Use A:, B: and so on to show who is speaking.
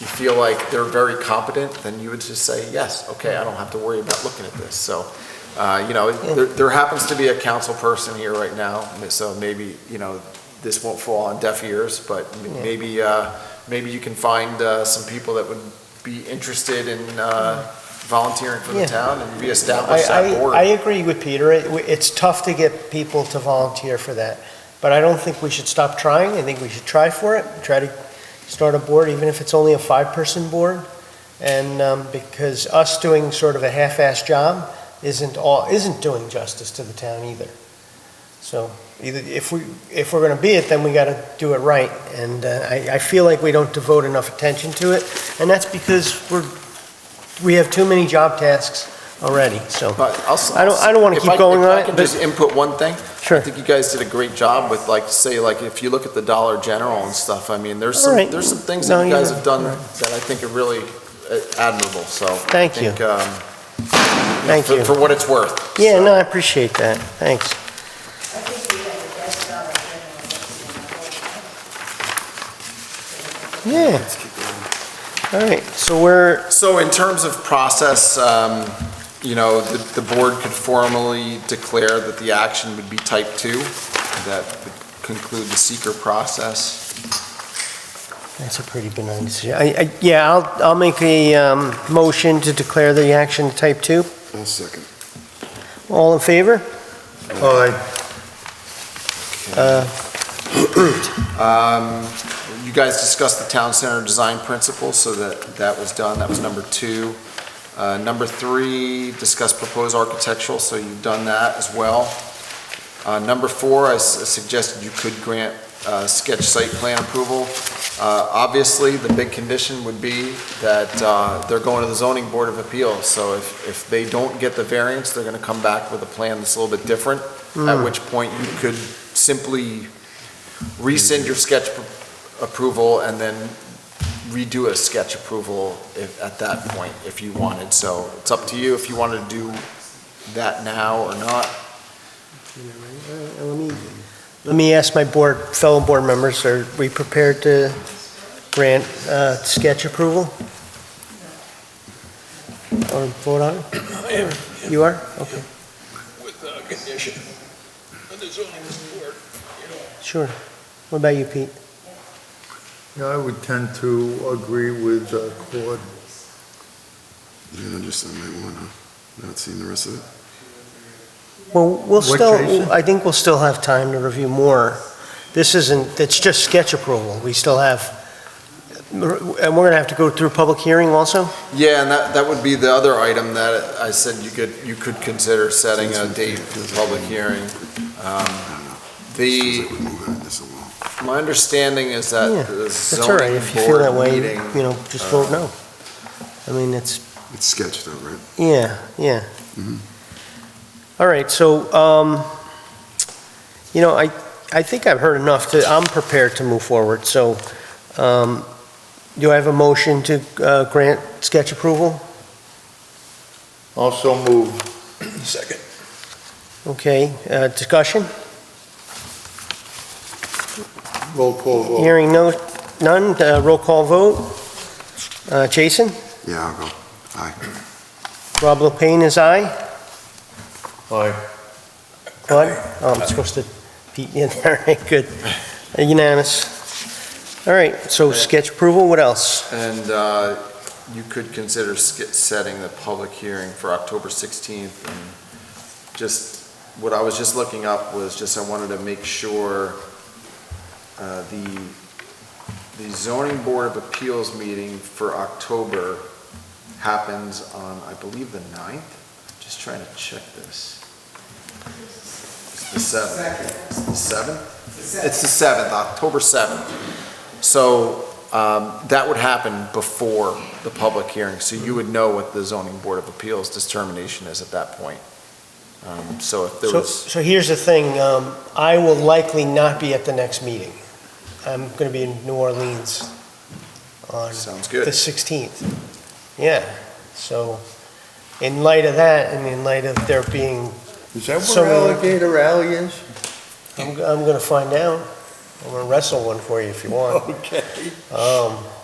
A: you feel like they're very competent, then you would just say, yes, okay, I don't have to worry about looking at this. So, uh, you know, there, there happens to be a council person here right now, so maybe, you know, this won't fall on deaf ears, but m- maybe, uh, maybe you can find uh, some people that would be interested in uh, volunteering for the
B: Yeah.
A: town and
B: I,
A: reestablish that
B: I,
A: board.
B: I agree with Peter. It- It's tough to get people to volunteer for that, but I don't think we should stop trying. I think we should try for it, try to start a board, even if it's only a five-person board. And, um, because us doing sort of a half-assed job isn't all, isn't doing justice to the town either. So either, if we, if we're gonna be it, then we gotta do it right. And, uh, I, I feel like we don't devote enough attention to it, and that's because we're, we have too many job tasks already, so.
A: But also,
B: I don't- I don't wanna
A: if
B: keep
A: I-
B: going on
A: If I
B: it,
A: can
B: but-
A: just input one thing, I
B: Sure.
A: think you guys did a great job with like, say, like if you look at the Dollar General and stuff, I mean, there's some,
B: Alright.
A: there's some things
B: No,
A: that you
B: you're
A: guys have done
B: right.
A: that I think are really uh, admirable, so. I
B: Thank you.
A: think, um,
B: Thank
A: for-
B: you.
A: For what it's worth.
B: Yeah,
A: So,
B: no, I appreciate that. Thanks.
C: I think we have the best job I've ever done.
B: Yeah. All right, so we're,
A: So in terms of process, um, you know, the, the board could formally declare that the action would be type two. That would conclude the seeker process.
B: that's a pretty benign decision. I, I, yeah, I'll, I'll make a, um, motion to declare the action type two.
D: I'll second.
B: All in favor?
D: Aye.
B: Uh,
A: Um, You guys discussed the town center design principles, so that, that was done, that was number two. Uh, Number three, discuss proposed architectural, so you've done that as well. Uh, Number four, I s- suggested you could grant uh, sketch site plan approval. Uh, Obviously, the big condition would be that uh, they're going to the zoning board of appeals, so if, if they don't get the variance, they're gonna come back with a plan that's a little bit different, at which point you could simply rescind your sketch pr- approval and then redo a sketch approval if, at that point, if you wanted. So it's up to you if you wanted to do that now or not.
B: Uh, Let me, let me ask my board, fellow board members, are we prepared to grant uh, sketch approval? Or vote on it? You are? Okay,
E: with a condition of the zoning board, you know,
B: sure. What about you, Pete?
F: Yeah, I would tend to agree with uh, Claude.
D: You didn't understand my one, huh? Not seen the rest of it?
B: Well, we'll
F: What,
B: still,
F: Jason?
B: I think we'll still have time to review more. This isn't, it's just sketch approval. We still have, and we're going to have to go through public hearing also?
A: Yeah, and that, that would be the other item that I said you could, you could consider setting a date for the public hearing. Um, The,
D: Feels like we're moving on this along.
A: my understanding is
B: Yeah,
A: that the
B: That's all right.
A: zoning
B: If you feel that
A: board
B: way,
A: meeting.
B: you know, just vote no. I mean, it's,
D: It's sketched out, right?
B: Yeah, yeah.
D: Mhm.
B: Mm-hmm. All right, so, um, you know, I, I think I've heard enough to, I'm prepared to move forward, so, um, do I have a motion to, uh, grant sketch approval?
F: Also move.
E: second.
B: Okay, uh, discussion?
F: Roll call vote.
B: Hearing no, none, uh, roll call vote. Uh, Jason?
D: Yeah, I'll go. Aye.
B: Rob Lopane is aye.
F: Aye.
B: Claude? Oh, I'm supposed to, Pete, yeah, all right, good. Uh, Unanimous. All right, so sketch approval, what else?
A: And uh, you could consider sk- setting the public hearing for October 16th. And Just, what I was just looking up was just, I wanted to make sure uh, the, the zoning board of appeals meeting for October happens on, I believe, the 9th? Just trying to check this. It's the 7th. It's the 7th? It's the 7th, October 7th. So um, That would happen before the public hearing, so you would know what the zoning board of appeals determination is at that point. Um, So if there
B: So,
A: was,
B: so here's the thing, um, I will likely not be at the next meeting. I'm gonna be in New Orleans on
A: sounds
B: the
A: good.
B: 16th. Yeah, so in light of that, and in light of there being,
F: Is that
B: So
F: where
B: moved.
F: Alligator Alley is?
B: I'm, I'm gonna find out. I'm gonna wrestle one for you if you want.
F: Okay.
B: Um,